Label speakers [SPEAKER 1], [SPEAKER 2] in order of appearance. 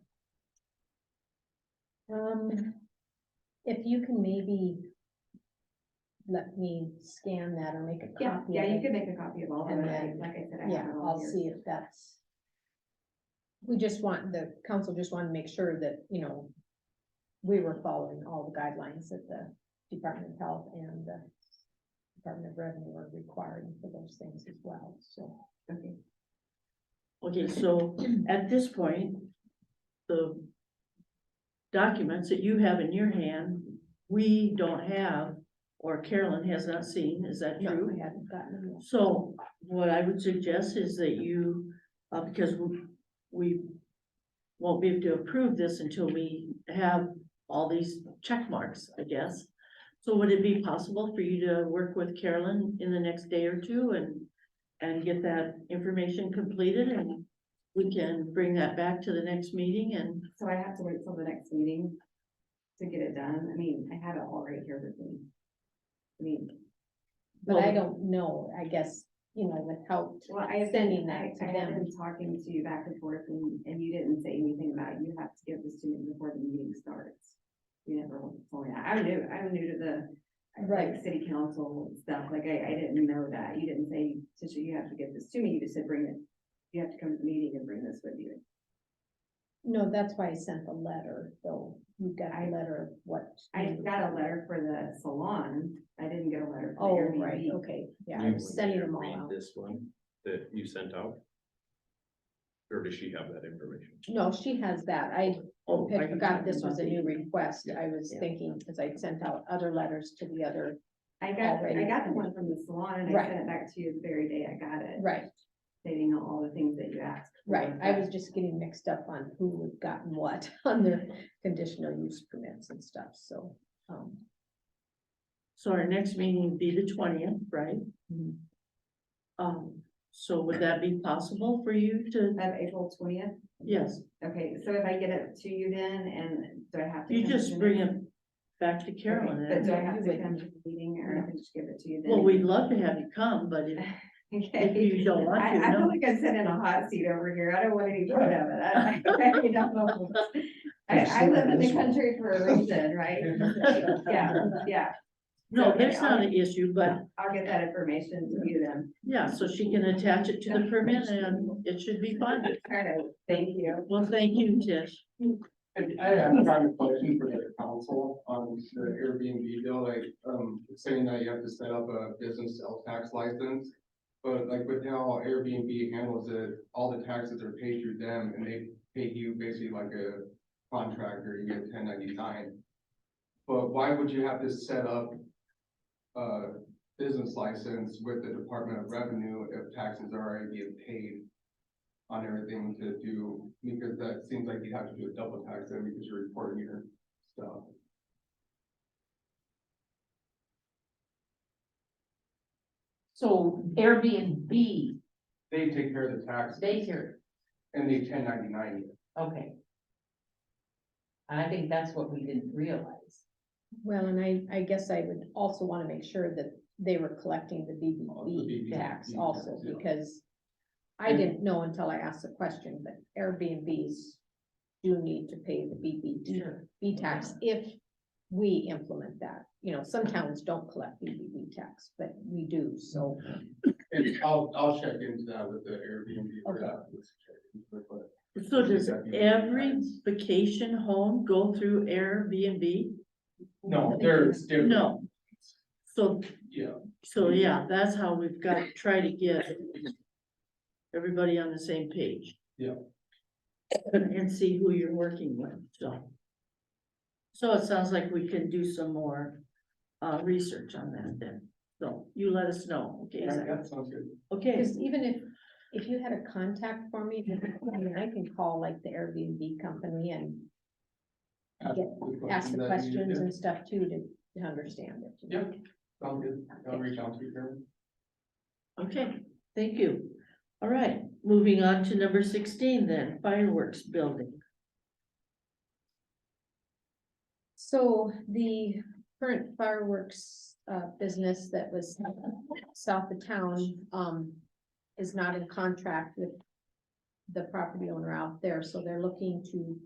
[SPEAKER 1] Um, if you can maybe let me scan that or make a
[SPEAKER 2] Yeah,
[SPEAKER 1] copy
[SPEAKER 2] yeah, you
[SPEAKER 1] of
[SPEAKER 2] can
[SPEAKER 1] it,
[SPEAKER 2] make a copy of all of
[SPEAKER 1] Um, And
[SPEAKER 2] it,
[SPEAKER 1] then-
[SPEAKER 2] like I said, I
[SPEAKER 1] yeah,
[SPEAKER 2] have it all
[SPEAKER 1] I'll
[SPEAKER 2] here.
[SPEAKER 1] see if that's. We just want, the council just wanted to make sure that, you know, we were following all the guidelines that the Department of Health and the Department of Revenue were requiring for those things as well, so.
[SPEAKER 2] Okay.
[SPEAKER 3] Okay, so at this point, the documents that you have in your hand, we don't have, or Carolyn has not seen, is that
[SPEAKER 1] No,
[SPEAKER 3] true?
[SPEAKER 1] I haven't gotten them yet.
[SPEAKER 3] So what I would suggest is that you, uh, because we- we won't be able to approve this until we have all these check marks, I guess. So would it be possible for you to work with Carolyn in the next day or two and, and get that information completed and we can bring that back to the next meeting and,
[SPEAKER 2] So I have to wait till the next meeting to get it done. I mean, I have it all right here with me. I mean,
[SPEAKER 1] But I
[SPEAKER 3] Well-
[SPEAKER 1] don't know, I guess, you know, without
[SPEAKER 2] well, I have
[SPEAKER 1] sending
[SPEAKER 2] been,
[SPEAKER 1] that
[SPEAKER 2] I
[SPEAKER 1] to
[SPEAKER 2] I have
[SPEAKER 1] them.
[SPEAKER 2] been talking to you back and forth and, and you didn't say anything about you have to give this to me before the meeting starts. You never told me that. I'm new, I'm new to the
[SPEAKER 1] Right.
[SPEAKER 2] like city council stuff. Like I, I didn't know that. You didn't say, Tisha, you have to give this to me. You just said bring it. You have to come to the meeting and bring this with you.
[SPEAKER 1] No, that's why I sent the letter, though. You got a letter of what?
[SPEAKER 2] I
[SPEAKER 1] you-
[SPEAKER 2] got a letter for the salon. I didn't get a letter
[SPEAKER 1] Oh,
[SPEAKER 2] for the
[SPEAKER 1] right,
[SPEAKER 2] Airbnb.
[SPEAKER 1] okay, yeah,
[SPEAKER 4] You
[SPEAKER 1] I'm
[SPEAKER 4] would
[SPEAKER 1] sending them all
[SPEAKER 4] read
[SPEAKER 1] out.
[SPEAKER 4] This one that you sent out? Or does she have that information?
[SPEAKER 1] No, she has that. I
[SPEAKER 3] oh. are
[SPEAKER 1] had
[SPEAKER 3] you
[SPEAKER 1] forgot
[SPEAKER 3] talking
[SPEAKER 1] this was a
[SPEAKER 3] about
[SPEAKER 1] new
[SPEAKER 3] the-
[SPEAKER 1] request. I was
[SPEAKER 3] Yeah.
[SPEAKER 1] thinking, because I'd sent out other letters to the other.
[SPEAKER 2] I got, I
[SPEAKER 1] already.
[SPEAKER 2] got the one from the salon and I
[SPEAKER 1] Right.
[SPEAKER 2] sent it back to you the very day I got it,
[SPEAKER 1] Right,
[SPEAKER 2] stating all the things that you asked. for.
[SPEAKER 1] right. I was just getting mixed up on who had gotten what on their conditional use permits and stuff, so. um,
[SPEAKER 3] So our next meeting would be the twentieth, right?
[SPEAKER 1] Mhm.
[SPEAKER 3] Um, so would that be possible for you to,
[SPEAKER 2] Of April twentieth,
[SPEAKER 3] yes,
[SPEAKER 2] okay, so if I get it to you then, and do I have to?
[SPEAKER 3] you
[SPEAKER 2] come to
[SPEAKER 3] just
[SPEAKER 2] the
[SPEAKER 3] bring it
[SPEAKER 2] meeting?
[SPEAKER 3] back to Carolyn.
[SPEAKER 2] Okay, But
[SPEAKER 3] and-
[SPEAKER 2] do I
[SPEAKER 1] Yeah, you
[SPEAKER 2] have to
[SPEAKER 1] would.
[SPEAKER 2] come to the meeting or I can just give it to you then?
[SPEAKER 3] Well, we'd love to have you come, but if, if
[SPEAKER 2] Okay.
[SPEAKER 3] you don't want
[SPEAKER 2] I,
[SPEAKER 3] to,
[SPEAKER 2] I feel
[SPEAKER 3] no.
[SPEAKER 2] like I'm sitting in a hot seat over here. I don't want any part of it. I, I really don't know. I, I live in the country for a reason, right? Yeah, yeah,
[SPEAKER 3] No,
[SPEAKER 2] okay,
[SPEAKER 3] that's not an issue, but
[SPEAKER 2] I'll get that information to you then.
[SPEAKER 3] yeah, so she can attach it to the permit and it should be fine.
[SPEAKER 2] All right, thank you.
[SPEAKER 3] Well, thank you, Tish.
[SPEAKER 5] I, I have a private question for the council on the Airbnb deal, like, um, saying that you have to set up a business sales tax license. But like with how Airbnb handles it, all the taxes are paid through them and they pay you basically like a contractor, you get ten ninety-nine. But why would you have to set up a business license with the Department of Revenue if taxes are already being paid on everything to do, because that seems like you have to do a double tax then because you're reporting your stuff.
[SPEAKER 6] So Airbnb,
[SPEAKER 5] They take care of the tax
[SPEAKER 6] daycare,
[SPEAKER 5] and they ten ninety-nine.
[SPEAKER 6] okay. I think that's what we didn't realize.
[SPEAKER 1] Well, and I, I guess I would also want to make sure that they were collecting the
[SPEAKER 5] Oh,
[SPEAKER 1] BBB
[SPEAKER 5] BBB
[SPEAKER 1] tax
[SPEAKER 5] E tax,
[SPEAKER 1] also,
[SPEAKER 5] yeah.
[SPEAKER 1] because I didn't know until I asked the question, but Airbnbs do need to pay the BBB B E tax if we implement that. You know, some towns don't collect BBB tax, but we do, so,
[SPEAKER 5] And I'll, I'll check into that with the Airbnb for
[SPEAKER 1] Okay.
[SPEAKER 5] that. Let's check into it, but
[SPEAKER 3] So does every vacation home go through Airbnb?
[SPEAKER 5] No, there's, there.
[SPEAKER 3] No. So,
[SPEAKER 5] Yeah,
[SPEAKER 3] so yeah, that's how we've got to try to get everybody on the same page.
[SPEAKER 5] Yeah.
[SPEAKER 3] And see who you're working with, so. So it sounds like we can do some more, uh, research on that then. So you let us know, okay?
[SPEAKER 5] that,
[SPEAKER 3] Zach?
[SPEAKER 5] that sounds good.
[SPEAKER 3] Okay,
[SPEAKER 1] because even if, if you had a contact for me, I mean, I can call like the Airbnb company and
[SPEAKER 5] Ask
[SPEAKER 1] Yeah,
[SPEAKER 5] the
[SPEAKER 1] ask the
[SPEAKER 5] questions that you need
[SPEAKER 1] questions
[SPEAKER 5] to.
[SPEAKER 1] and stuff too to- to understand it.
[SPEAKER 5] Yeah, sounds good. I'll reach out to you, Karen.
[SPEAKER 3] okay, thank you. All right, moving on to number sixteen then, fireworks building.
[SPEAKER 1] So the current fireworks uh business that was south of town um is not in contract with the property owner out there, so they're looking to